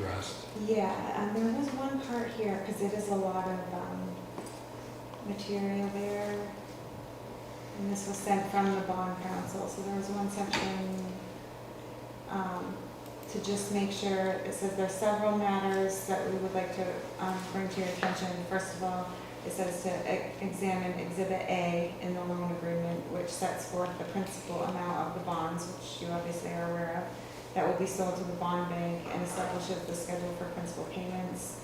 list. Yeah, um, there was one part here, because it is a lot of, um, material there. And this was sent from the bond council, so there was one section, um, to just make sure, it says there are several matters that we would like to, um, bring to your attention. First of all, it says to e- examine exhibit A in the loan agreement, which sets forth the principal amount of the bonds, which you obviously are aware of that will be sold to the bond bank and establishes the schedule for principal payments.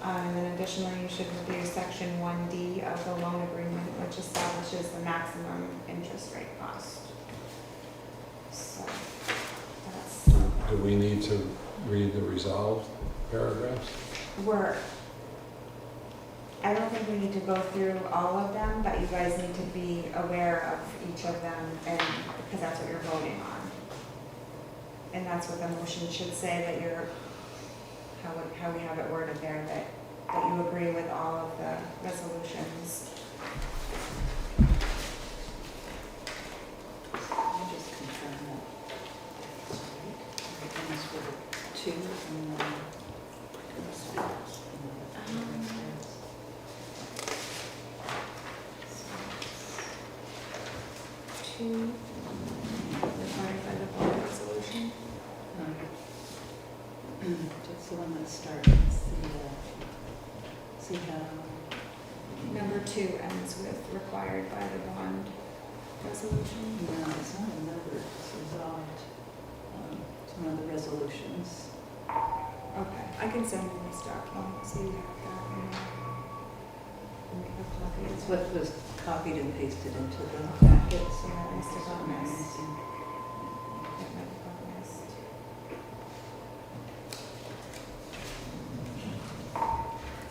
Um, And then additionally, you should review section one D of the loan agreement, which establishes the maximum interest rate cost. So, that's, Do we need to read the resolved paragraphs? we're, I don't think we need to go through all of them, but you guys need to be aware of each of them and, because that's what you're voting on. And that's what the motion should say, that you're, how, we- how we have it worded there, that, that you agree with all of the resolutions. Let me just confirm that. That's right. Everything's with a two and then. Two, required by the board resolution. Um, Just the one that starts, the, uh, see how, Number two ends with required by the bond resolution. no, it's not a number, it's resolved. Um, It's one of the resolutions. Okay, I can send you this document, so you have that. and I'll Make a copy It's as well. what was copied and pasted into the packet, so. Yeah, I still got mine. Missing. That might be organized.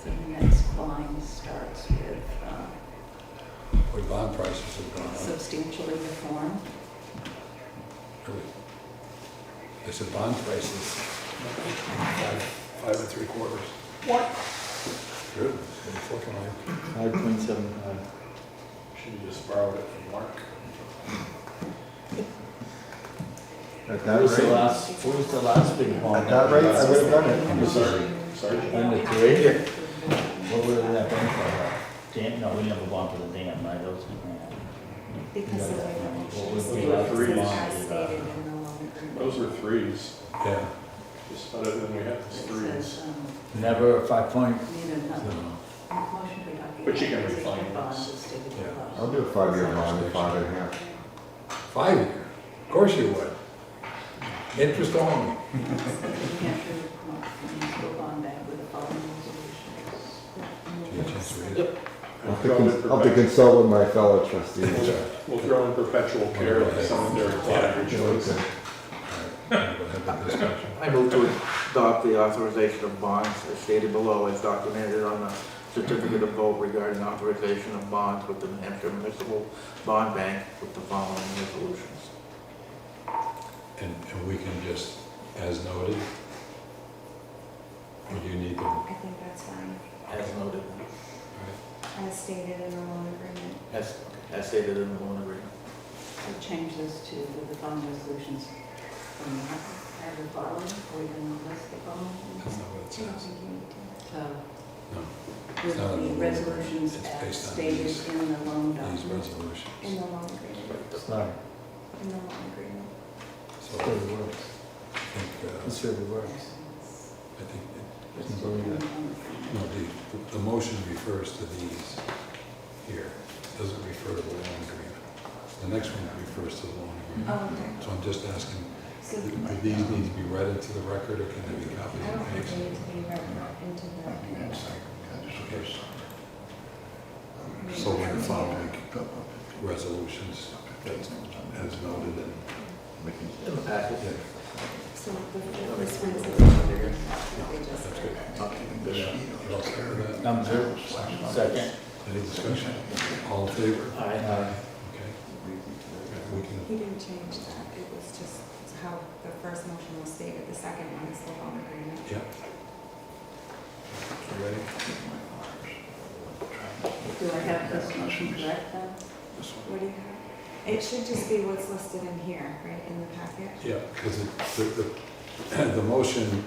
So the next line starts with uh, Or bond prices have gone substantially reform. up? It's a bond prices. Five five and three quarters. What? True, it's looking like. Five point seven five. Should have just borrowed it from Mark. At that was the rate, last, what was the last big bond? at that rate, I would have done it. I'm sorry. Sorry. Under three? Yeah. What would have that been for? Dam, no, we never bond for the dam, right? Those, Because of the way the What motion was is the stated, last it's reading? as stated in the loan Those agreement. were threes, Yeah, just better than we had It these says, threes. um, never a five point. need a no, number. Motion to adopt. But you can Existing refinance. bond is stated Yeah. above. I'll do a five-year bond, five and a half. five year, of course you would. Interest only. New Hampshire municipal bond act with the following resolutions. Do you have a chance to read it? I'll have to cons- I'll have to consult with my fellow trustees. We'll we'll throw in perpetual care of secondary collateral choice. All right, we'll have that discussion. I move to adopt the authorization of bonds as stated below as documented on the certificate of vote regarding authorization of bonds with the New Hampshire Municipal Bond Bank with the following resolutions. And, and we can just, as noted, would you need them? I think that's fine, As noted, as stated in the loan agreement. as, as stated in the loan agreement. So change this to with the following resolutions from the Hampshire following, or even list the That's following. not what it I don't says. think you need to. So No, with not in the the loan. resolutions It's as based on stated these- in the loan These document. In resolutions. the loan agreement, Sorry, in the loan agreement. So this really works. I think, uh, This really works. Yes. I think, it- Isn't really good. no, the, the motion refers to these here. Doesn't refer to the loan agreement. The next one refers to the loan agreement. Oh, okay, So I'm just asking, so do these need to be read into the record or can they be copied I and don't think they pasted? need to be read into Okay. So we're following resolutions that's as noted and In the packet. Yeah, the, so the, That this makes one's. sense. They just read it. You all clear with that? Number two, second. Any discussion? All in favor? Uh, Okay. We can, He didn't change that, it was just how the first motion was stated, the second one is the loan agreement. yeah. You ready? Do I have this motion correct then? What do you have? It should just be what's listed in here, right, in the packet? Yeah, because the, the, the motion